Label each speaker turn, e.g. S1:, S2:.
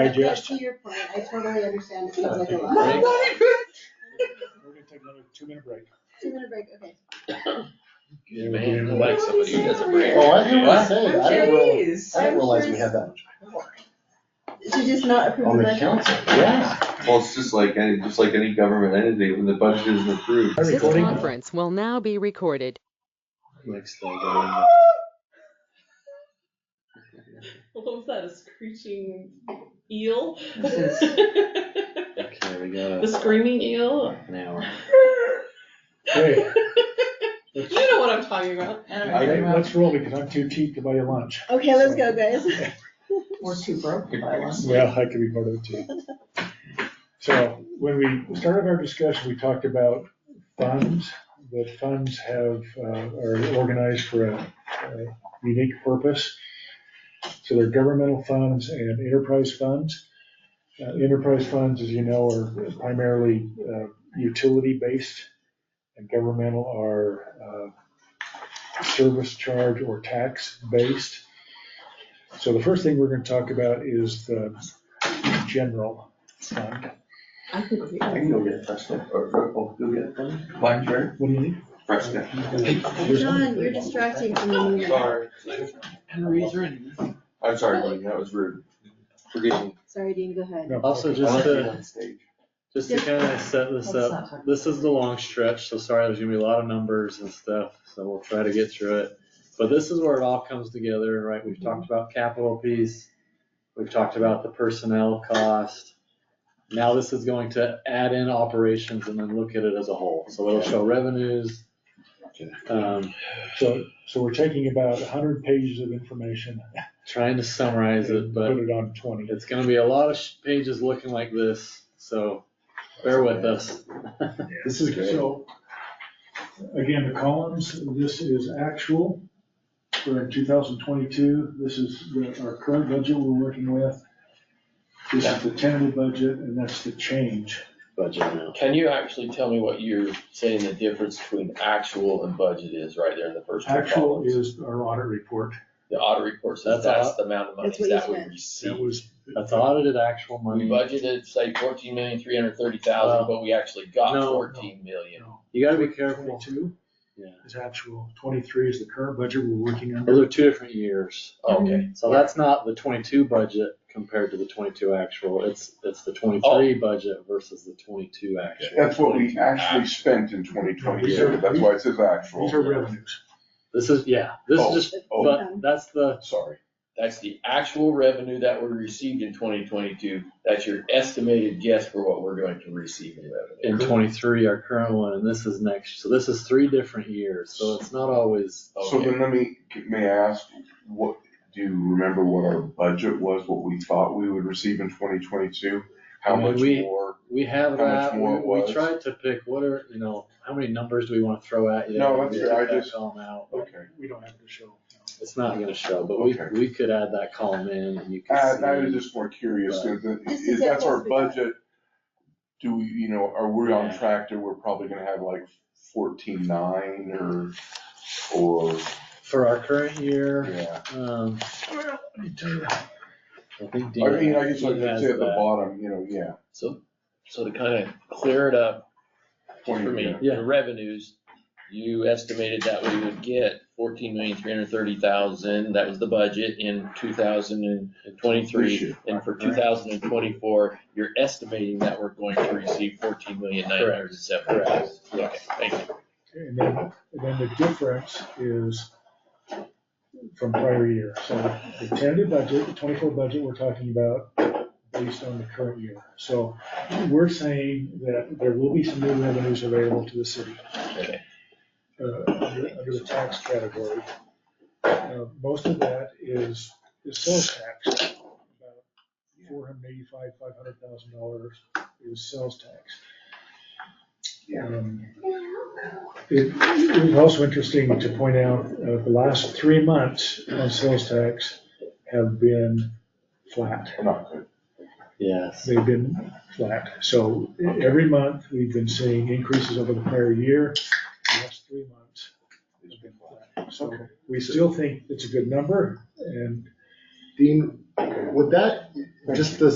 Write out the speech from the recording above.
S1: digest.
S2: To your point, I totally understand, it seems
S1: Uh,
S2: like a
S1: take a
S2: lot.
S1: break.
S3: Right.
S1: We're gonna take another two minute break.
S2: Two minute break, okay.
S1: Yeah,
S3: Man, I
S1: we'll
S3: like
S1: do
S3: somebody who doesn't break.
S4: Oh, I hear what you're
S3: What?
S4: saying, I didn't realize,
S3: Jeez.
S4: I didn't realize we had that much
S2: To just not approve
S4: on
S2: the
S4: the
S2: budget.
S4: council, yeah.
S5: Well, it's just like any, just like any government entity, when the budget isn't approved.
S1: Are we
S6: This
S1: recording?
S6: conference will now be recorded.
S5: Next thing I
S3: What was that, a screeching eel?
S5: This know.
S3: The
S5: Okay, we got
S3: screaming eel?
S5: an hour.
S1: Okay,
S3: You know what I'm talking about.
S5: I
S1: okay, let's roll because I'm too cheap to buy you lunch.
S2: Okay, let's go, guys.
S3: We're too broke
S5: to buy one.
S1: Well, I could be part of it too. So when we started our discussion, we talked about funds, that funds have, uh, are organized for a a unique purpose. So they're governmental funds and enterprise funds. Uh, Enterprise funds, as you know, are primarily uh, utility-based and governmental are uh, service charge or tax-based. So the first thing we're gonna talk about is the general fund.
S3: I think we
S4: I can go get a Fresca, or, or, go get one, Blackberry,
S1: What do you need?
S4: Fresca.
S1: There's one-
S2: John, you're distracting from me.
S5: Sorry,
S7: Henry's running.
S5: I'm sorry, Glenn, that was rude. Forgive me.
S2: Sorry, Dean, go ahead.
S1: no,
S7: Also,
S1: okay.
S7: Just
S5: I like
S7: to-
S5: being on stage.
S7: Just to kind of set this up, this is the long stretch, so sorry, there's gonna be a lot of numbers and stuff, so we'll try to get through it. But this is where it all comes together, right? We've talked about capital piece, we've talked about the personnel cost. Now this is going to add in operations and then look at it as a whole, so it'll show revenues. Um,
S1: So, so we're taking about hundred pages of information
S7: trying to
S1: and
S7: summarize it, but
S1: put it on twenty.
S7: it's gonna be a lot of sh- pages looking like this, so bear with us.
S1: This is great. So, again, the columns, this is actual for 2022. This is the- our current budget we're working with. This is the tentative budget, and that's the change.
S7: Budget now.
S8: Can you actually tell me what you're saying the difference between actual and budget is right there in the first two
S1: Actual
S8: columns?
S1: is our audit report.
S8: The audit report says
S7: That's all.
S8: that's the amount of money
S2: That's what you
S8: that we
S2: said.
S1: That
S8: received.
S1: was.
S7: That's audited actual
S8: We
S7: money.
S8: budgeted, say fourteen million, three hundred thirty thousand,
S7: Uh,
S8: but we actually got
S7: no.
S8: fourteen million.
S1: No.
S7: You gotta be careful.
S1: 22
S7: Yeah.
S1: is actual. 23 is the current budget we're working
S7: Those
S1: under.
S7: are two different years.
S8: Okay,
S7: So that's not the twenty-two budget compared to the twenty-two actual. It's, it's the twenty-three
S9: Oh.
S7: budget versus the twenty-two actual.
S9: That's what we actually spent in twenty twenty-two, that's why it says
S1: These
S9: actual,
S1: are revenues.
S7: This is, yeah, this
S9: Oh,
S7: is just,
S9: oh.
S7: but that's the,
S9: sorry.
S8: that's the actual revenue that we received in twenty twenty-two. That's your estimated guess for what we're going to receive in revenue.
S7: in twenty-three, our current one, and this is next. So this is three different years, so it's not always,
S9: So
S8: Okay,
S9: then let me, may I ask, what, do you remember what our budget was, what we thought we would receive in twenty twenty-two? How
S7: I mean,
S9: much
S7: we-
S9: more?
S7: we have
S9: How much
S7: that.
S9: more it
S7: We we
S9: was?
S7: tried to pick what are, you know, how many numbers do we wanna throw at you?
S9: No, that's
S7: We
S9: good. I
S7: took that
S9: just-
S7: column out.
S9: Okay,
S1: We don't have to show.
S7: It's not gonna show, but we,
S9: Okay.
S7: we could add that column in and you
S9: Uh,
S7: can see.
S9: I was just more curious,
S7: But-
S9: is that-
S2: Just
S9: is
S2: to get
S9: that's our
S2: what we got.
S9: budget? Do we, you know, are we on
S7: Yeah.
S9: track to, we're probably gonna have like fourteen-nine or, or,
S7: For our current year,
S9: yeah.
S7: um,
S1: Let me tell you.
S7: I think
S9: I
S7: Dean.
S9: mean, I guess I could
S7: Dean has
S9: say at the
S7: that.
S9: bottom, you know, yeah.
S8: so, so to kind of clear it up, for me,
S7: Yeah.
S8: the revenues, you estimated that we would get fourteen million, three hundred thirty thousand, that was the budget in two thousand and
S9: This
S8: twenty-three.
S9: year.
S8: And for two thousand and twenty-four, you're estimating that we're going to receive fourteen million, nine hundred and seventy thousand. Okay, thank you.
S1: And then, and then the difference is from prior year. So the tentative budget, the twenty-four budget we're talking about based on the current year. So we're saying that there will be some new revenues available to the city.
S8: Okay.
S1: Uh, under under the tax category. Uh, Most of that is, is sales tax. About Four hundred eighty-five, five hundred thousand dollars is sales tax.
S9: Yeah.
S1: Um, it it was also interesting to point out, uh, the last three months on sales tax have been flat.
S9: Not good.
S7: Yes.
S1: They've been flat. So every month, we've been seeing increases over the prior year. The Last three months, it's been flat. So we still think it's a good number, and
S4: Dean, would that,
S1: Just the